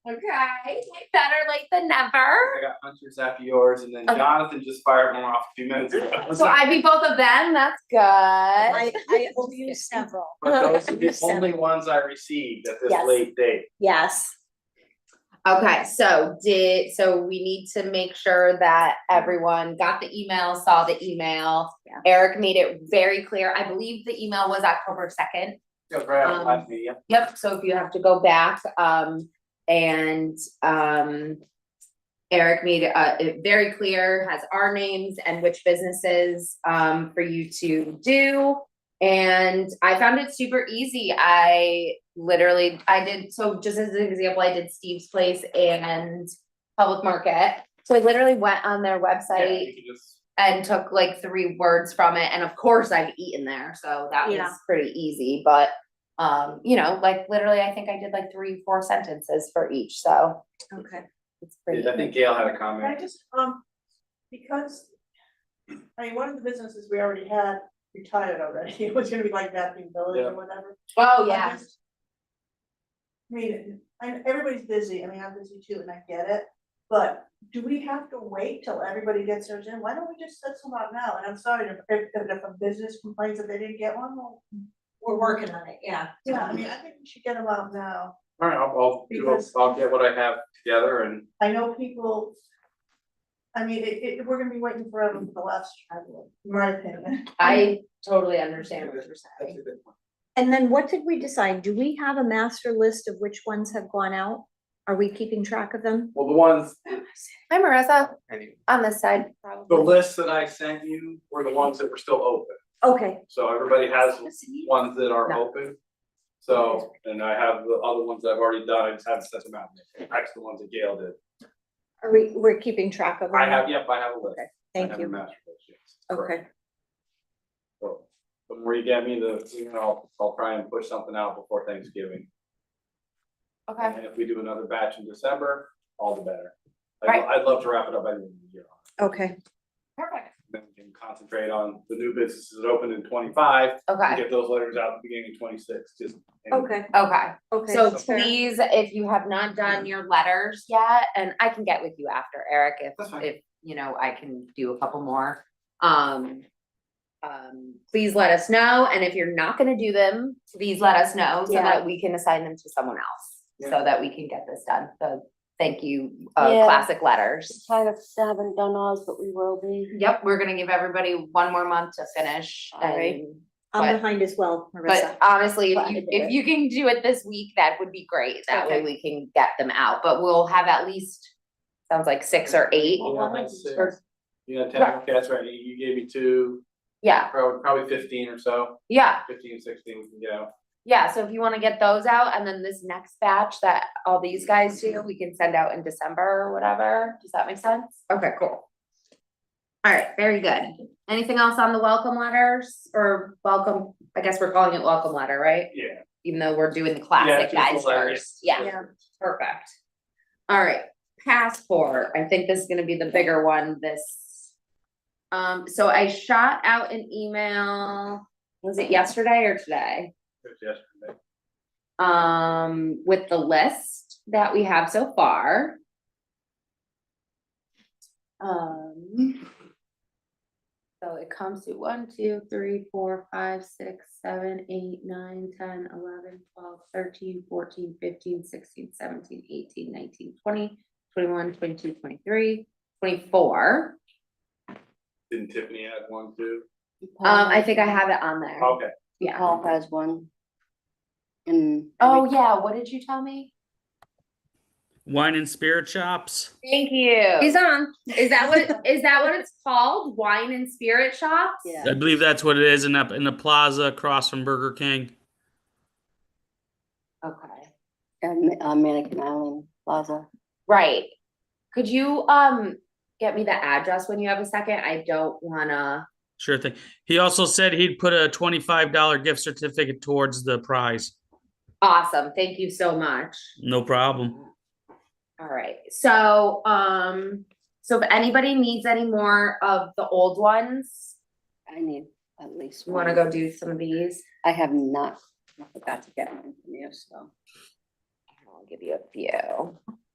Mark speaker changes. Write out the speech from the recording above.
Speaker 1: Okay, better late than never.
Speaker 2: I got hunters after yours, and then
Speaker 1: Okay.
Speaker 2: Jonathan just fired one off a few minutes ago.
Speaker 1: So I beat both of them, that's good.
Speaker 3: I, I owe you several.
Speaker 2: But those are the
Speaker 3: Seven.
Speaker 2: only ones I received at this
Speaker 3: Yes.
Speaker 2: late date.
Speaker 3: Yes,
Speaker 1: Okay, so did, so we need to make sure that everyone got the email, saw the email.
Speaker 3: Yeah.
Speaker 1: Eric made it very clear, I believe the email was October second.
Speaker 2: Yeah, Brad,
Speaker 1: Um,
Speaker 2: I see ya.
Speaker 1: Yep, so if you have to go back, um, and, um. Eric made uh it very clear, has our names and which businesses, um, for you to do. And I found it super easy, I literally, I did, so just as an example, I did Steve's Place and Public Market. So I literally went on their
Speaker 2: Yeah,
Speaker 1: website
Speaker 2: you can just-
Speaker 1: and took like three words from it. And of course, I've eaten there, so that
Speaker 3: Yeah.
Speaker 1: was pretty easy. But um, you know, like literally, I think I did like three, four sentences for each, so
Speaker 3: okay.
Speaker 1: it's pretty.
Speaker 2: I think Gail had a
Speaker 4: I
Speaker 2: comment.
Speaker 4: just, um, because, I mean, one of the businesses we already had retired already, it was gonna be like Bathing Village
Speaker 2: Yeah.
Speaker 4: or whatever.
Speaker 1: Oh
Speaker 4: I
Speaker 1: yeah,
Speaker 4: just- I mean, and everybody's busy, I mean, I'm busy too, and I get it, but do we have to wait till everybody gets theirs in? Why don't we just set some out now? And I'm sorry, if, if, if a business complains that they didn't get one, well,
Speaker 3: We're working on it, yeah.
Speaker 4: yeah, I mean, I think we should get them out now.
Speaker 2: All right, I'll, I'll, do- I'll-
Speaker 4: Because-
Speaker 2: I'll get what I have together and
Speaker 4: I know people, I mean, it, it, we're gonna be waiting forever for the last travel, in my opinion.
Speaker 1: I totally understand what you're saying.
Speaker 3: And then what did we decide? Do we have a master list of which ones have gone out? Are we keeping track of them?
Speaker 2: Well, the ones,
Speaker 1: Hi, Marissa,
Speaker 2: anyway,
Speaker 1: on this side.
Speaker 2: the lists that I sent you were the ones that were still open.
Speaker 3: Okay,
Speaker 2: So everybody has ones that are
Speaker 1: No.
Speaker 2: open. So, and I have the other ones I've already done, I just haven't sent them out. That's the ones that Gail did.
Speaker 3: are we, we're keeping track of them?
Speaker 2: I have, yep, I have a list.
Speaker 3: Okay,
Speaker 2: I
Speaker 3: Thank
Speaker 2: have a
Speaker 3: you.
Speaker 2: master list, yes. Correct.
Speaker 3: Okay,
Speaker 2: So, But Marie get me the, you know, I'll, I'll try and push something out before Thanksgiving.
Speaker 1: Okay,
Speaker 2: And if we do another batch in December, all the better. I'd,
Speaker 1: Right.
Speaker 2: I'd love to wrap it up by the end of the year.
Speaker 3: okay,
Speaker 1: perfect.
Speaker 2: Then we can concentrate on the new businesses that opened in twenty-five, and
Speaker 1: Okay,
Speaker 2: get those letters out at the beginning of twenty-six, just. and-
Speaker 3: okay,
Speaker 1: okay.
Speaker 3: okay.
Speaker 1: So
Speaker 3: that's fair.
Speaker 1: please, if you have not done your letters yet, and I can get with you after, Eric, if,
Speaker 2: That's fine.
Speaker 1: if, you know, I can do a couple more. Um, um, please let us know, and if you're not gonna do them, please let us know so
Speaker 3: Yeah.
Speaker 1: that we can assign them to someone else. So
Speaker 2: Yeah.
Speaker 1: that we can get this done, so thank you, uh,
Speaker 5: Yeah.
Speaker 1: classic letters.
Speaker 5: Kind of haven't done ours, but we will be.
Speaker 1: Yep, we're gonna give everybody one more month to finish
Speaker 5: All right.
Speaker 1: and
Speaker 3: I'm behind as well, Marissa.
Speaker 1: But honestly, if
Speaker 5: Glad I
Speaker 1: you,
Speaker 5: did
Speaker 1: if
Speaker 5: it.
Speaker 1: you can do it this week, that would be great. That way
Speaker 5: Okay.
Speaker 1: we can get them out, but we'll have at least, sounds like six or eight.
Speaker 2: You know, that's six.
Speaker 1: Or-
Speaker 2: You know, ten, that's right, you- you gave me two,
Speaker 1: Yeah,
Speaker 2: probably, probably fifteen or so,
Speaker 1: yeah,
Speaker 2: fifteen, sixteen we can get out.
Speaker 1: yeah. So if you wanna get those out and then this next batch that all these guys do, we can send out in December or whatever. Does that make sense? Okay, cool. All right, very good. Anything else on the welcome letters or welcome, I guess we're calling it welcome letter, right?
Speaker 2: Yeah.
Speaker 1: Even though we're doing the
Speaker 2: Yeah,
Speaker 1: classic
Speaker 2: just the
Speaker 1: guys
Speaker 2: letters.
Speaker 1: first, yeah.
Speaker 3: Yeah.
Speaker 1: Perfect. All right, passport. I think this is gonna be the bigger one this. Um, so I shot out an email, was it yesterday or today?
Speaker 2: Yesterday.
Speaker 1: Um, with the list that we have so far. Um. So it comes to one, two, three, four, five, six, seven, eight, nine, ten, eleven, twelve, thirteen, fourteen, fifteen, sixteen, seventeen, eighteen, nineteen, twenty, twenty-one, twenty-two, twenty-three, twenty-four.
Speaker 2: Didn't Tiffany add one too?
Speaker 1: Um, I think I have it on there.
Speaker 2: Okay,
Speaker 1: Yeah.
Speaker 5: Paul has one. And.
Speaker 1: Oh, yeah. What did you tell me?
Speaker 6: Wine and spirit shops.
Speaker 1: Thank you.
Speaker 5: He's on.
Speaker 1: Is that what, it- is that what it's called? Wine and spirit shops?
Speaker 5: Yeah.
Speaker 6: I believe that's what it is in up in the plaza across from Burger King.
Speaker 1: Okay,
Speaker 5: And, uh, Mannequin Island Plaza.
Speaker 1: right. Could you, um, get me the address when you have a second? I don't wanna,
Speaker 6: Sure thing. He also said he'd put a twenty-five dollar gift certificate towards the prize.
Speaker 1: awesome. Thank you so much.
Speaker 6: No problem.
Speaker 1: All right, so, um, so if anybody needs any more of the old ones,
Speaker 5: I need at least.
Speaker 1: you wanna
Speaker 5: one.
Speaker 1: go do some of these?
Speaker 5: I have not, I forgot to get one from you, so. I'll give you a few.